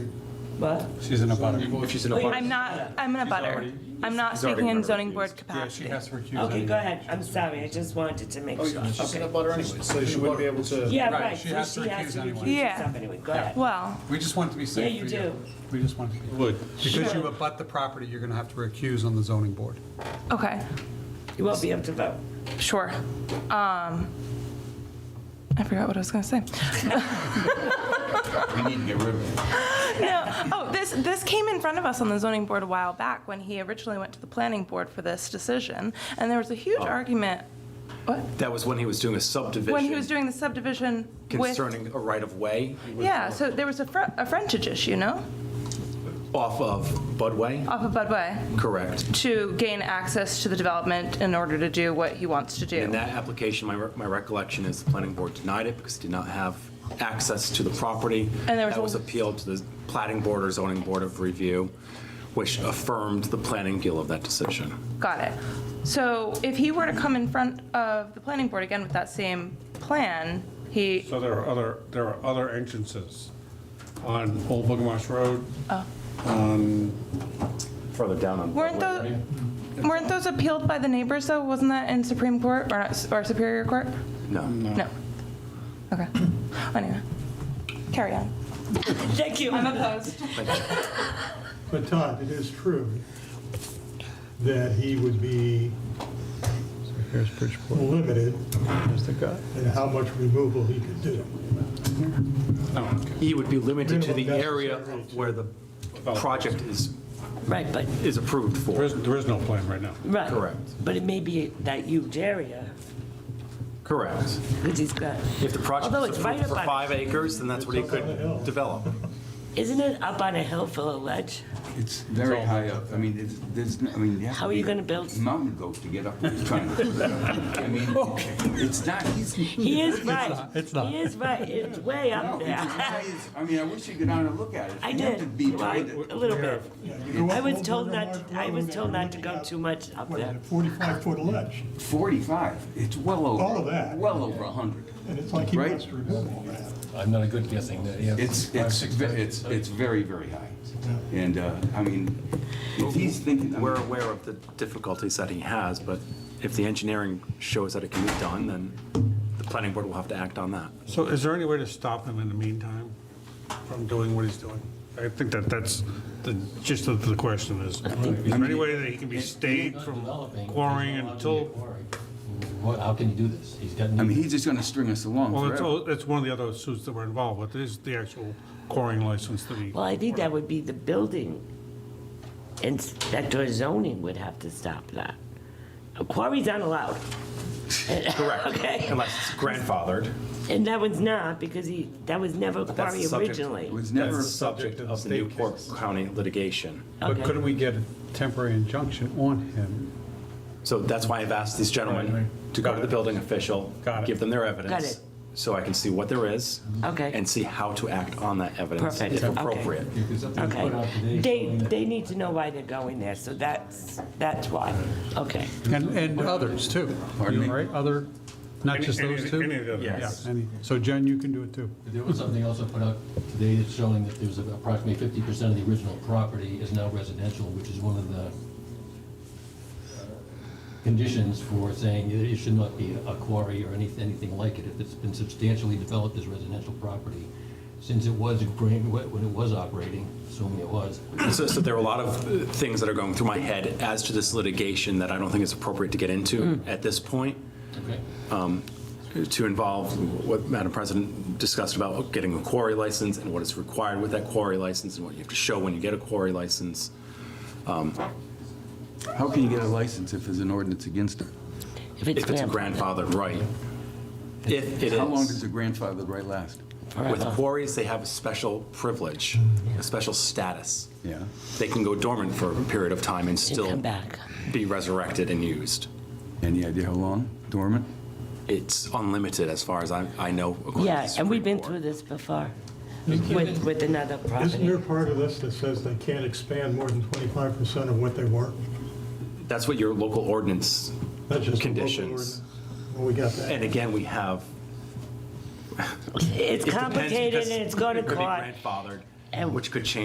What? She's in a butter. She's in a Wait, butter. I'm not, I'm in a butter. I'm not he's already speaking in buttered, zoning board Yeah, she capacity. has to recuse. Okay, anyway. go ahead. I'm sorry. I just wanted to make sure. She's in a butter anyways, so she wouldn't be able to. Yeah, Right, right. she so has to recuse anyway. recuse Yeah. herself Anyway, go ahead. Well, We just want it to be safe. Yeah, you for do. We just want it to be. Would. Because you Sure. abut the property, you're going to have to recuse on the zoning board. okay, You won't be able to vote. sure. Um, I forgot what I was gonna say. We need to get rid of it. No, oh, this, this came in front of us on the zoning board a while back when he originally went to the planning board for this decision. And there was a Oh. huge argument, what? That was when he was doing a subdivision. When he was doing the subdivision with. Concerning a right-of-way Yeah, so there was a fr- a frontage issue, no? off of Budway, Off of Budway correct? to gain access to the development in order to do what he wants to In do. that application, my, re- my recollection is the planning board denied it because it did not have access to the property. And there was That was a- appealed to the plating board or zoning board of review, which affirmed the planning deal of that decision. Got it. So if he were to come in front of the planning board again with that same plan, he, So there are other, there are other entrances on Old Bugamarsh Road. Further down on. weren't those, weren't those appealed by the neighbors though? Wasn't that in Supreme Court or not- or Superior Court? No. No. Okay. Anyway, carry on. Thank you. I'm opposed. But Todd, it is true that he would be Here's Bridgeport, limited here's the guy. in how much removal he could do. He would be limited to the Minimum area necessary reach. where the project is, Right, but, is approved There for. is, there is no plan right now. right. Correct. But it may be that huge area, Correct. because he's got, If the project Although is it's right approved for up on- five acres, then that's what he It's up on the hill. could develop. isn't it up on a hill full of ledge? It's very high up. I mean, it's, there's, n- I mean, you have How to are you be gonna build- Mountain goat to get up where he's trying to. I mean, it's not, he's. He is right. It's not. He is right, it's way No, up it's as high there. as- I mean, I wish you could down and look at it. I You have to did, be well, I- trying a to. little bit. I was told not to. to- I was told not to go too much up there. 45-foot ledge, Forty-five, it's well over. All of that. Well over a hundred. and it's like he Right. wants to remove all that. I'm not a good guessing, yeah. It's, Five, it's, six ve- times. it's, it's very, very high. And, uh, I mean, if he's thinking. I mean, We're aware of the difficulties that he has, but if the engineering shows that it can be done, then the planning board will have to act on that. So is there any way to stop him in the meantime from doing what he's doing? I think that that's the gist of the question is, is there any way that he can be stayed from quarrying until, What, how can you do this? He's got. I mean, he's just gonna string us along well, it's, forever. all- it's one of the other suits that were involved, but there's the actual quarrying license that he. Well, I think that would be the building inspector zoning would have to stop that. A Quarries aren't allowed. Correct. Okay, Unless it's grandfathered. and that one's not, because he, that was never a that's quarry subject- It originally. was That's never. the subject Subject of of the state Newport cases. County litigation. Okay. But couldn't we get a temporary injunction on him? So that's why I've asked these gentlemen to go Got to the it. building official, Got it. give them their evidence. Got it. So I can see what there is. Okay. And see how to act on that evidence. Perfect. If Okay. appropriate. Okay, they, they need to know why they're going there, so that's, that's why, okay. And, and others too, Pardon me? right? Other, not just Any- those any- Any two? of the other. Yes. Any- So Jen, you can do it too. There was something also put out today that's showing that there's approximately fifty percent of the original property is now residential, which is one of the uh, conditions for saying it it should not be a quarry or anything, anything like it, if it's been substantially developed as residential property. Since it was, a grain- when it was operating, assuming it was, So, so there are a lot of uh, things that are going through my head as to this litigation that I don't think it's appropriate to get into at this point, uh, okay? to involve what Madam President discussed about oh, getting a quarry license and what is required with that quarry license and what you have to show when you get a quarry license. How can you get a license if there's an ordinance against it? If it's a grandfathered right. If it How long does is. a grandfather right last? With quarries, they have a special privilege, a special status. Yeah. They can go dormant for a period of time and still come back. be resurrected and used. Any idea how long dormant? It's unlimited as far as I, I know. according to Yeah, the and we've Supreme been Court. through this before with, with another Isn't there property. part of this that says they can't expand more than 25% of what they were? That's what your local ordinance, That's just a local Conditions. ordinance. Well, we got and that. again, we have. It's it depends complicated because and it's going to it could be court. Grandfathered, And- which could change